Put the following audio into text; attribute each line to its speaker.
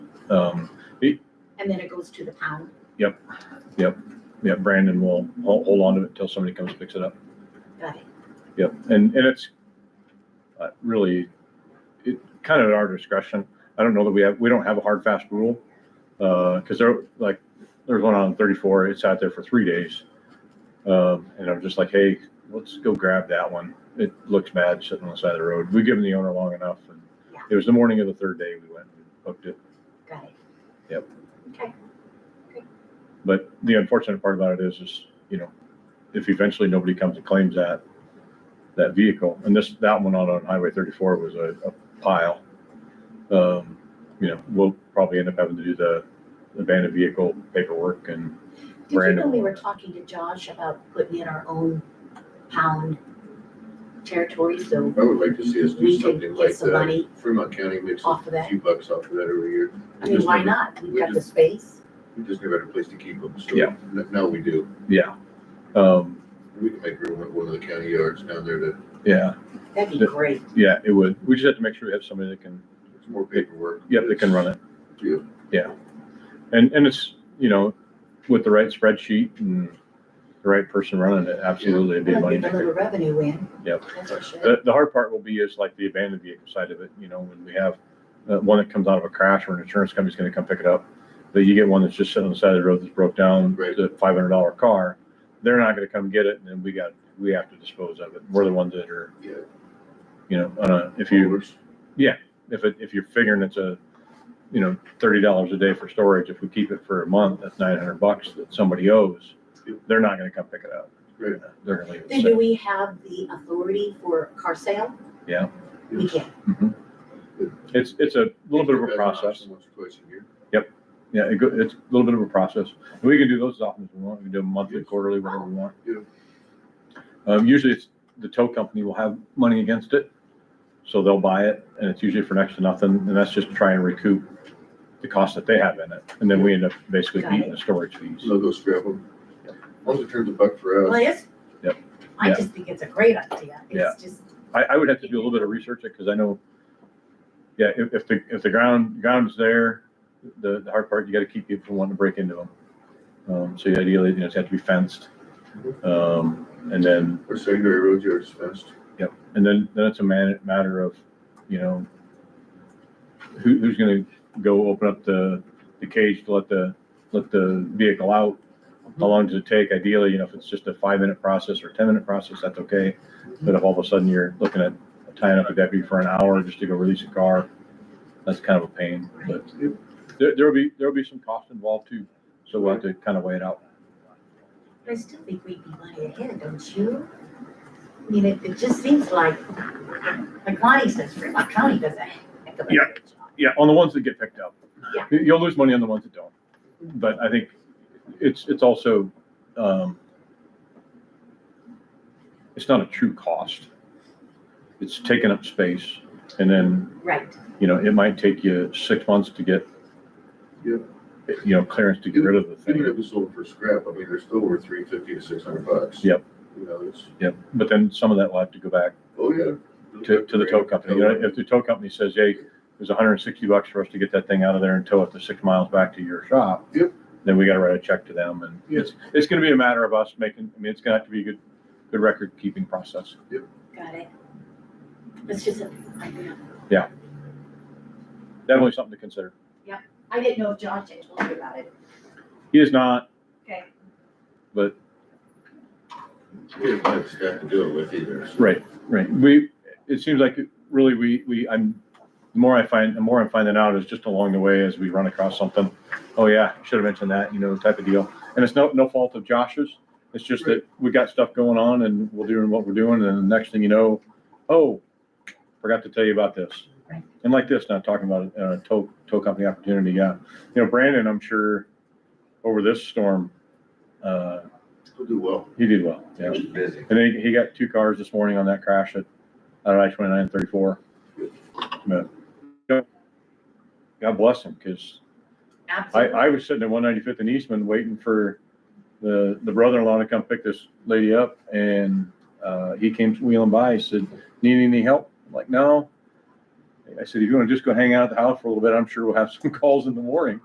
Speaker 1: Um,
Speaker 2: and then it goes to the pound.
Speaker 1: yeah, Brandon will hold, hold on to it until somebody comes picks it up.
Speaker 2: Got it.
Speaker 1: Yep, and, and it's uh, really, it kind of at our discretion. I don't know that we have, we don't have a hard, fast rule. Uh, cause there, like, there's one on thirty-four, it sat there for three days. Um, and I'm just like, hey, let's go grab that one. It looks bad sitting on the side of the road. We've given the owner long enough. and
Speaker 2: Yeah.
Speaker 1: It was the morning of the third day we went and hooked it.
Speaker 2: Got it.
Speaker 1: Yep.
Speaker 2: Okay.
Speaker 1: But the unfortunate part about it is, is, you know, if eventually nobody comes and claims that, that vehicle, and this, that one on, on Highway thirty-four was a, a pile. Um, you know, we'll probably end up having to do the abandoned vehicle paperwork and
Speaker 2: Did you know
Speaker 1: Brandon.
Speaker 2: we were talking to Josh about putting in our own pound territory, so
Speaker 3: I would like to see us do
Speaker 2: we could
Speaker 3: something
Speaker 2: get
Speaker 3: like
Speaker 2: some
Speaker 3: that.
Speaker 2: money
Speaker 3: Fremont County makes a
Speaker 2: off of that?
Speaker 3: few bucks off of that every year.
Speaker 2: I mean,
Speaker 3: Just
Speaker 2: why
Speaker 3: never-
Speaker 2: not? We've
Speaker 3: we
Speaker 2: got the
Speaker 3: just-
Speaker 2: space.
Speaker 3: We just never had a place to keep them, so
Speaker 1: Yeah.
Speaker 3: n- now we do.
Speaker 1: yeah. Um,
Speaker 3: We can make room at one of the county yards down there to,
Speaker 1: yeah,
Speaker 2: That'd be
Speaker 1: The-
Speaker 2: great.
Speaker 1: yeah, it would. We just have to make sure we have somebody that can,
Speaker 3: it's more paperwork.
Speaker 1: yep, that can run it.
Speaker 3: Yeah.
Speaker 1: And, and it's, you know, with the right spreadsheet and the right person running it, absolutely it'd be a
Speaker 2: Well,
Speaker 1: money
Speaker 2: Get a
Speaker 1: maker.
Speaker 2: little revenue in.
Speaker 1: Yep.
Speaker 2: That's for sure.
Speaker 1: The, the hard part will be is like the abandoned vehicle side of it, you know, when we have uh, one that comes out of a crash or an insurance company's gonna come pick it up. But you get one that's just sitting on the side of the road that's broke down,
Speaker 3: Right.
Speaker 1: the five hundred dollar car, they're not gonna come get it and then we got, we have to dispose of it. We're the ones that are,
Speaker 3: Yeah.
Speaker 1: you know, uh, if you,
Speaker 3: Works.
Speaker 1: if it, if you're figuring it's a, you know, thirty dollars a day for storage, if we keep it for a month, that's nine hundred bucks that somebody owes.
Speaker 3: Yep.
Speaker 1: They're not gonna come pick it up.
Speaker 3: Right.
Speaker 1: They're gonna leave it.
Speaker 2: Then do
Speaker 1: sit.
Speaker 2: we have the authority for car sale?
Speaker 1: Yeah.
Speaker 2: We can.
Speaker 1: Mm-hmm. It's, it's a little bit of a
Speaker 3: That's an option
Speaker 1: process.
Speaker 3: Once or twice a year.
Speaker 1: Yeah, it go, it's a little bit of a process. And we can do those as often as we want. We can do them monthly,
Speaker 3: Yes.
Speaker 1: quarterly, whatever we want.
Speaker 3: Yeah.
Speaker 1: Um, usually it's, the tow company will have money against it. So they'll buy it and it's usually for next to nothing. And that's just to try and recoup the cost that they have in it. And then we end up basically
Speaker 2: Got
Speaker 1: eating the storage fees.
Speaker 3: So they'll scrap them. Once it turns a buck for
Speaker 2: Well,
Speaker 3: us,
Speaker 2: it's.
Speaker 1: Yep.
Speaker 2: I
Speaker 1: Yeah.
Speaker 2: just think it's a great idea.
Speaker 1: Yeah.
Speaker 2: It's just,
Speaker 1: I, I would have to do a little bit of research because I know, yeah, if, if the, if the ground, ground's there, the, the hard part, you gotta keep people from wanting to break into them. Um, so ideally, you know, it's have to be fenced. Um, and then
Speaker 3: our secondary road yards fenced.
Speaker 1: And then, then it's a man, matter of, you know, who, who's gonna go open up the, the cage to let the, let the vehicle out? How long does it take? Ideally, you know, if it's just a five-minute process or a ten-minute process, that's okay. But if all of a sudden you're looking at tying up a deputy for an hour just to go release a car, that's kind of a pain, but there, there'll be, there'll be some cost involved too. So we'll have to kind of weigh it out.
Speaker 2: I still think we'd be money ahead, don't you? I mean, it, it just seems like, like Lonnie says, Fremont County does a heck of a
Speaker 1: Yeah.
Speaker 2: good job.
Speaker 1: Yeah, on the ones that get picked up.
Speaker 2: Yeah.
Speaker 1: You- You'll lose money on the ones that don't. But I think it's, it's also, um, it's not a true cost. It's taking up space and then,
Speaker 2: Right,
Speaker 1: you know, it might take you six months to get,
Speaker 3: Yeah.
Speaker 1: you know, clearance to get rid of the
Speaker 3: Even
Speaker 1: thing.
Speaker 3: if it's sold for scrap, I mean, they're still worth three fifty to six hundred bucks.
Speaker 1: Yep.
Speaker 3: You know, it's,
Speaker 1: Yep. But then some of that will have to go back
Speaker 3: oh, yeah.
Speaker 1: to, to the tow company. You know, if the tow company says, hey, there's hundred and sixty bucks for us to get that thing out of there and tow it the six miles back to your shop.
Speaker 3: Yep.
Speaker 1: Then we gotta write a check to them and
Speaker 3: Yep.
Speaker 1: it's, it's gonna be a matter of us making, I mean, it's gonna have to be a good, good record keeping process.
Speaker 2: got it. It's just, a- I don't know.
Speaker 1: Definitely something to consider.
Speaker 2: I didn't know if Josh had told you about it.
Speaker 1: He is not,
Speaker 2: Okay.
Speaker 3: We didn't have staff to do it with either. so-
Speaker 1: right, right. We, it seems like really we, we, I'm, the more I find, the more I'm finding out is just along the way as we run across something. Oh yeah, should have mentioned that, you know, type of deal. And it's no, no fault of Josh's. It's just that we got stuff going on and we're doing what we're doing. And the next thing you know, oh, forgot to tell you about this.
Speaker 2: Right.
Speaker 1: And like this, not talking about a tow, tow company opportunity. Yeah. You know, Brandon, I'm sure over this storm, uh,
Speaker 3: We'll do well.
Speaker 1: he did well. Yeah.
Speaker 3: busy.
Speaker 1: And then he- he got two cars this morning on that crash at, at I twenty-nine thirty-four. But God bless him, because I,
Speaker 2: Absolutely.
Speaker 1: I was sitting at one ninety-fifth in Eastman waiting for the, the brother-in-law to come pick this lady up and, uh, he came wheeling by, he said, need any help? I'm like, no. I said, if you want to just go hang out at the house for a little bit, I'm sure we'll have some calls in the morning.